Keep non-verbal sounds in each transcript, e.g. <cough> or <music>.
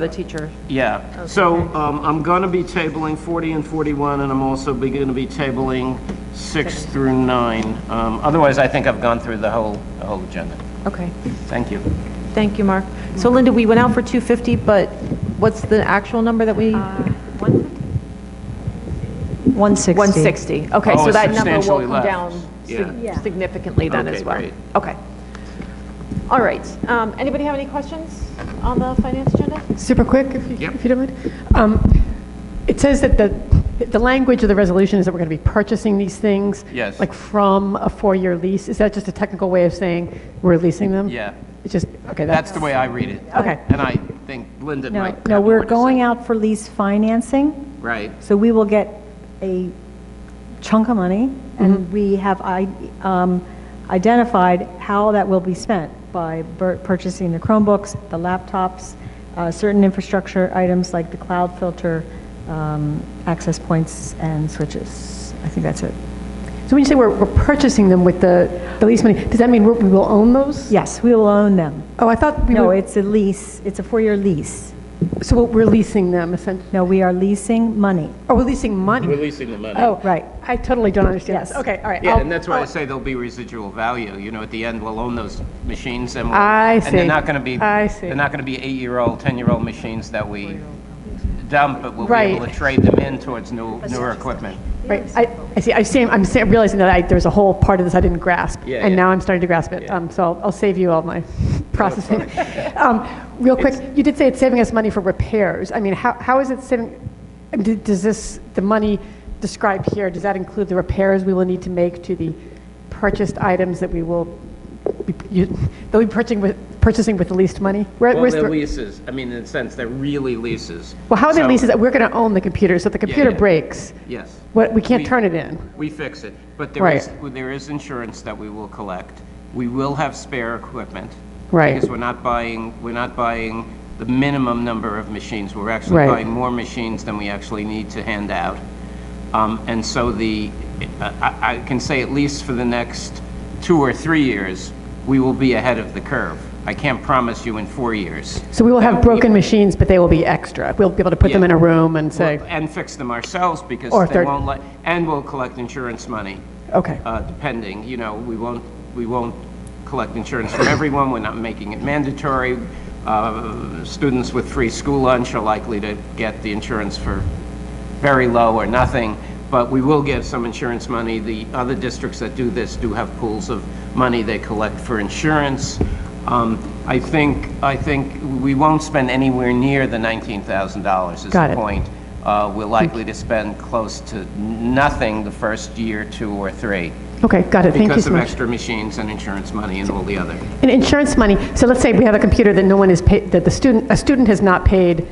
the teacher. Yeah, so um, I'm going to be tabling 40 and 41, and I'm also going to be tabling 6 through 9. Um, Otherwise, I think I've gone through the whole, the whole agenda. Okay, Thank you. thank you, Mark. So Linda, we went out for 250, but what's the actual number that we? 160. 160. Okay, Oh, so it's that number substantially will come down less. Yeah. sig- significantly then Okay, as well. great. Okay. All right. Um, Anybody have any questions on the finance agenda? Super quick, if you Yep. if you don't mind. Um, It says that the, the language of the resolution is that we're going to be purchasing these things. Yes. Like from a four-year lease. Is that just a technical way of saying we're leasing them? Yeah. It's just, okay, That's that's, the way I read it. Okay. And I think Linda might. No, have no, more we're to say. going out for lease financing, Right, so we will get a chunk of money, and we have i- um, identified how that will be spent by bur- purchasing the Chromebooks, the laptops, uh, certain infrastructure items like the cloud filter, um, access points, and switches. I think that's it. so when you say we're, we're purchasing them with the, the lease money, does that mean we're- we will own those? Yes, we will own them. Oh, I thought we No, were, it's a lease, it's a four-year lease. so we're leasing them essentially. No, we are leasing money. Oh, we're leasing money? releasing the money. Oh, Right. I totally don't understand this. Yes. Okay, all right. Yeah, I'll- and that's why I say there'll be residual value. You know, at the end, we'll own those machines and we'll. I And they're see. not going to be. I see. They're not going to be eight-year-old, 10-year-old machines that we dump, but we'll be Right. able to trade them in towards new, newer equipment. Right, I, I see, I see, I'm sa- realizing that I, there's a whole part of this I didn't grasp. Yeah, And yeah. now I'm starting to grasp it, um, so I'll, I'll save you all my <laughs> processing. Um, Real quick, you did say it's saving us money for repairs. I mean, how, how is it saving, I mean, d- does this, the money described here, does that include the repairs we will need to make to the purchased items that we will, be- you- <laughs> they'll be purchasing with, purchasing with the least money? We're- Well, we're- they're leases, I mean, in a sense, they're really leases. Well, how are they So- leases, we're going to own the computer, so if the computer yeah. breaks, Yes, what, We- we can't turn it in. we fix it, but there Right. is, there is insurance that we will collect. We will have spare equipment. Right. Because we're not buying, we're not buying the minimum number of machines. We're actually Right. buying more machines than we actually need to hand out. Um, And so the, I I can say at least for the next two or three years, we will be ahead of the curve. I can't promise you in four years. So we will have broken machines, but they will be extra. We'll be able to put them Yeah. in a room and say, Well, And fix them ourselves because Or they third- won't let, and we'll collect insurance money. okay, uh, depending, you know, we won't, we won't collect insurance from everyone, we're not making it mandatory. Uh, Students with free school lunch are likely to get the insurance for very low or nothing, but we will get some insurance money. The other districts that do this do have pools of money they collect for insurance. Um, I think, I think we won't spend anywhere near the $19,000 is Got the it. point. Uh, We're likely to spend close to nothing the first year, two, or three. okay, got it, thank you Because so of much. extra machines and insurance money and all the other. And insurance money, so let's say we have a computer that no one has paid, that the student, a student has not paid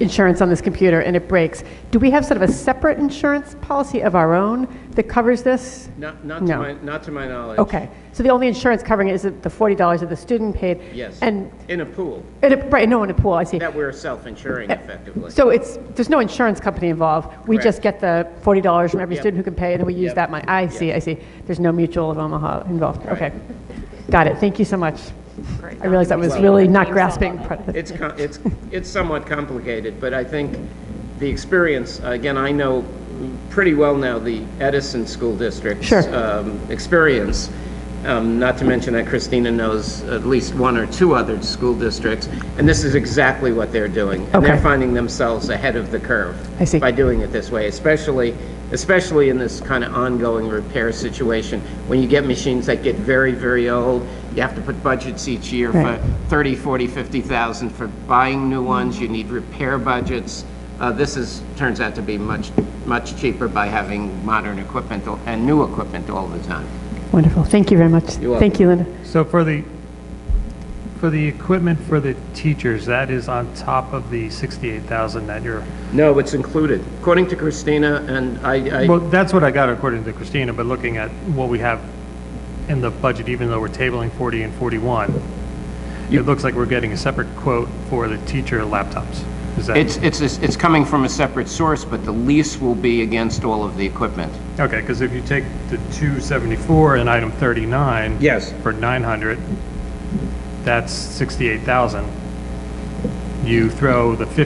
insurance on this computer and it breaks. Do we have sort of a separate insurance policy of our own that covers this? Not, not to No. my, not to my knowledge. Okay, so the only insurance covering it is the $40 that the student paid? Yes. And, In a pool and it- right, no, in a pool, I see. that we're self-insuring Eh, effectively. So it's, there's no insurance company involved. We just get the $40 from every Yep. student who can pay, and then we use Yep. that money. I see, I see. There's no Mutual of Omaha involved. Right. Okay. Got it. Thank you so much. I realize that was really not grasping. part of it. It's, co- it's, it's somewhat complicated, but I think the experience, again, I know pretty well now the Edison School District's Sure. um, experience, um, not to mention that Christina knows at least one or two other school districts, and this is exactly what they're doing. And they're Okay. finding themselves ahead of the curve. I see. By doing it this way, especially, especially in this kind of ongoing repair situation. When you get machines that get very, very old, you have to put budgets each year for Right. 30, 40, 50,000 for buying new ones. You need repair budgets. Uh, This is, turns out to be much, much cheaper by having modern equipment al- and new equipment all the time. Wonderful. Thank you very much. welcome. Thank you, Linda. So for the, for the equipment for the teachers, that is on top of the 68,000 that you're, No, it's included. According to Christina, and I, well, I, that's what I got according to Christina, but looking at what we have in the budget, even though we're tabling 40 and 41, it looks like we're getting a separate quote for the teacher laptops. Is that? it's, it's, it's coming from a separate source, but the lease will be against all of the equipment. Okay, because if you take the 274 and item 39. Yes. For 900, that's 68,000. you throw the 50